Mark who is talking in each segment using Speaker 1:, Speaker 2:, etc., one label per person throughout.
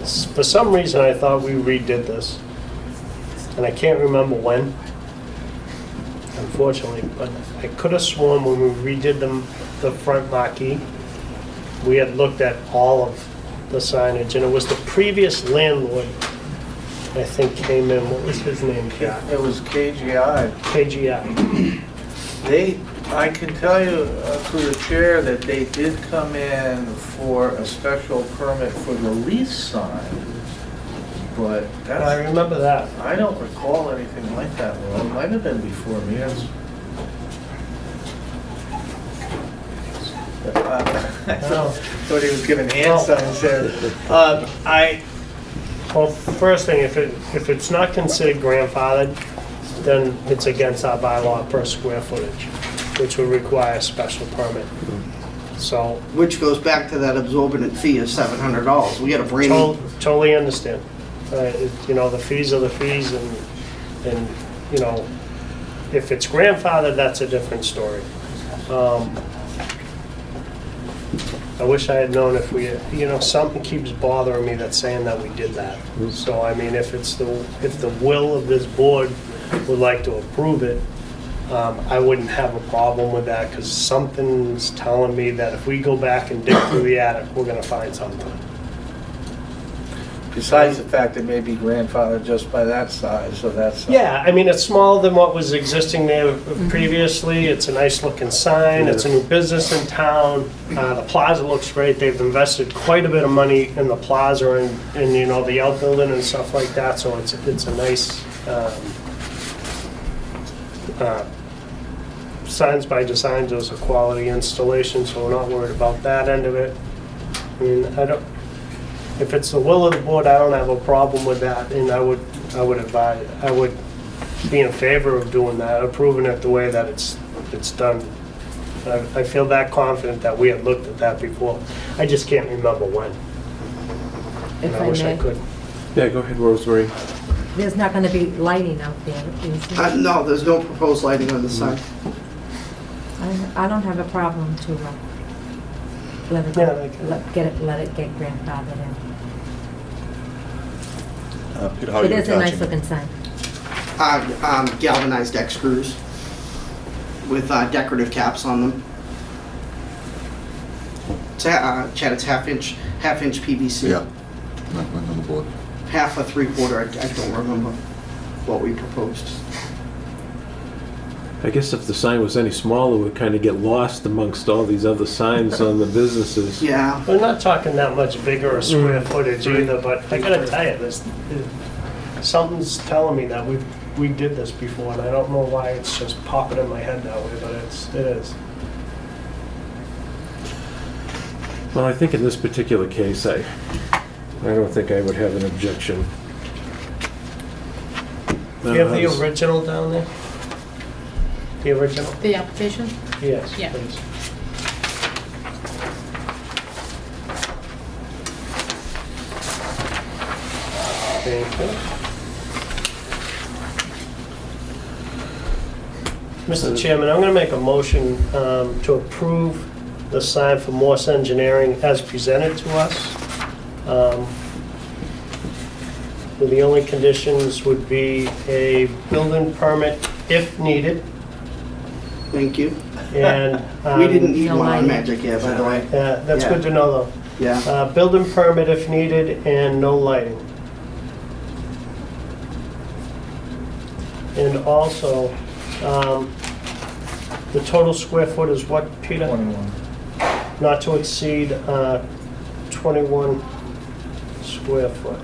Speaker 1: it's, for some reason, I thought we redid this. And I can't remember when, unfortunately, but I could have sworn when we redid them, the front marquee, we had looked at all of the signage, and it was the previous landlord, I think, came in, what was his name?
Speaker 2: It was KGI.
Speaker 1: KGI.
Speaker 2: They, I can tell you uh, through the chair that they did come in for a special permit for the lease sign, but
Speaker 1: And I
Speaker 2: that's,
Speaker 1: remember that.
Speaker 2: I don't recall anything like that, Well, it might have been before me, that's... I uh, thought he was giving hand signs there. Um, I,
Speaker 1: Well, first thing, if it, if it's not considered grandfathered, then it's against our bylaw per square footage, which would require a special permit. So,
Speaker 3: Which goes back to that absorbent fee of seven hundred dollars. We got a brand
Speaker 1: tol-
Speaker 3: new,
Speaker 1: totally understand. Uh, it- You know, the fees are the fees and, and, you know, if it's grandfathered, that's a different story. Um, I wish I had known if we, you know, something keeps bothering me that's saying that we did that. So, I mean, if it's the, if the will of this board would like to approve it, um, I wouldn't have a problem with that, because something's telling me that if we go back and dig through the attic, we're gonna find something.
Speaker 2: besides the fact it may be grandfathered just by that size, so that's...
Speaker 1: Yeah, I mean, it's smaller than what was existing there previously. It's a nice looking sign. It's a new business in town. Uh, The plaza looks great. They've invested quite a bit of money in the plaza and, and, you know, the outbuilding and stuff like that, so it's, it's a nice, um, uh, signs by design does a quality installation, so we're not worried about that end of it. I mean, I don't, if it's the will of the board, I don't have a problem with that, and I would, I would advise, I would be in favor of doing that, approving it the way that it's, it's done. I, I feel that confident that we had looked at that before. I just can't remember when.
Speaker 4: If
Speaker 1: and
Speaker 4: I
Speaker 1: wish I
Speaker 4: may,
Speaker 1: could.
Speaker 5: Yeah, go ahead, Rosemary.
Speaker 4: there's not gonna be lighting out there, is there?
Speaker 3: uh, no, there's no proposed lighting on the sign.
Speaker 4: I, I don't have a problem to, uh, let it,
Speaker 1: Yeah, okay.
Speaker 4: let, get it, let it get grandfathered in.
Speaker 6: Uh, Peter, how are you
Speaker 4: It is a nice
Speaker 6: attaching it?
Speaker 4: looking sign.
Speaker 1: Mm-hmm.
Speaker 3: Uh, um, galvanized deck screws with uh, decorative caps on them. It's, ha- uh, Chad, it's half inch, half inch PVC.
Speaker 6: Yeah, not not on the board.
Speaker 3: Half a three quarter, I, I don't remember what we proposed.
Speaker 5: I guess if the sign was any smaller, we'd kind of get lost amongst all these other signs on the businesses.
Speaker 3: Yeah,
Speaker 1: We're not talking that much bigger or square footage either, but I gotta tell you, this, something's telling me that we, we did this before, and I don't know why it's just popping in my head that way, but it's, it is.
Speaker 5: Well, I think in this particular case, I, I don't think I would have an objection.
Speaker 1: Do you have
Speaker 5: Uh,
Speaker 1: the original down there? The original?
Speaker 7: The application?
Speaker 1: Yes,
Speaker 7: Yeah.
Speaker 1: please. Thank you. Mr. Chairman, I'm going to make a motion um, to approve the sign for Morse Engineering as presented to us. Um, The only conditions would be a building permit if needed,
Speaker 3: thank you.
Speaker 1: and...
Speaker 3: We
Speaker 1: um,
Speaker 3: didn't need
Speaker 4: No
Speaker 3: one on
Speaker 4: lighting.
Speaker 3: Magic Air, by the way.
Speaker 1: Yeah, Uh, that's good to know, though.
Speaker 3: Yeah,
Speaker 1: Uh, Building permit if needed, and no lighting. And also, um, the total square foot is what, Peter?
Speaker 2: 21.
Speaker 1: Not to exceed uh, 21 square foot.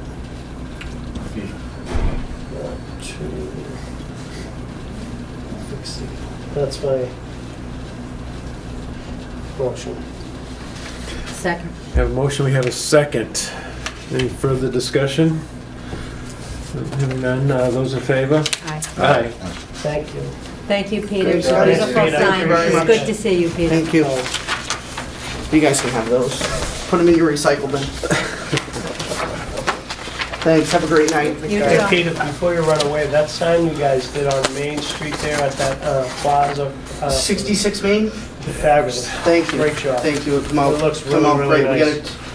Speaker 2: feet.
Speaker 1: Not to exceed. That's my motion.
Speaker 4: Second.
Speaker 5: Have a motion, we have a second. Any further discussion? Hearing none, uh, those in favor?
Speaker 4: Aye.
Speaker 5: Aye.
Speaker 1: Thank you.
Speaker 4: Thank you, Peter. It's a
Speaker 3: job.
Speaker 4: beautiful
Speaker 1: Thank you.
Speaker 3: Thank
Speaker 4: sign.
Speaker 3: you
Speaker 4: It's
Speaker 3: very
Speaker 4: good
Speaker 3: much.
Speaker 4: to see you, Peter.
Speaker 3: thank you. You guys can have those. Put them in your recycle bin. Thanks, have a great night.
Speaker 4: You
Speaker 1: Hey,
Speaker 4: too.
Speaker 1: Peter, before you run away, that sign you guys did on Main Street there at that uh, plaza. uh,
Speaker 3: 66 Main?
Speaker 1: Fabulous.
Speaker 3: Thank you.
Speaker 1: Great job.
Speaker 3: Thank you. Come out.
Speaker 1: It looks
Speaker 3: come out
Speaker 1: really, really
Speaker 3: great. We
Speaker 1: nice.
Speaker 3: gotta-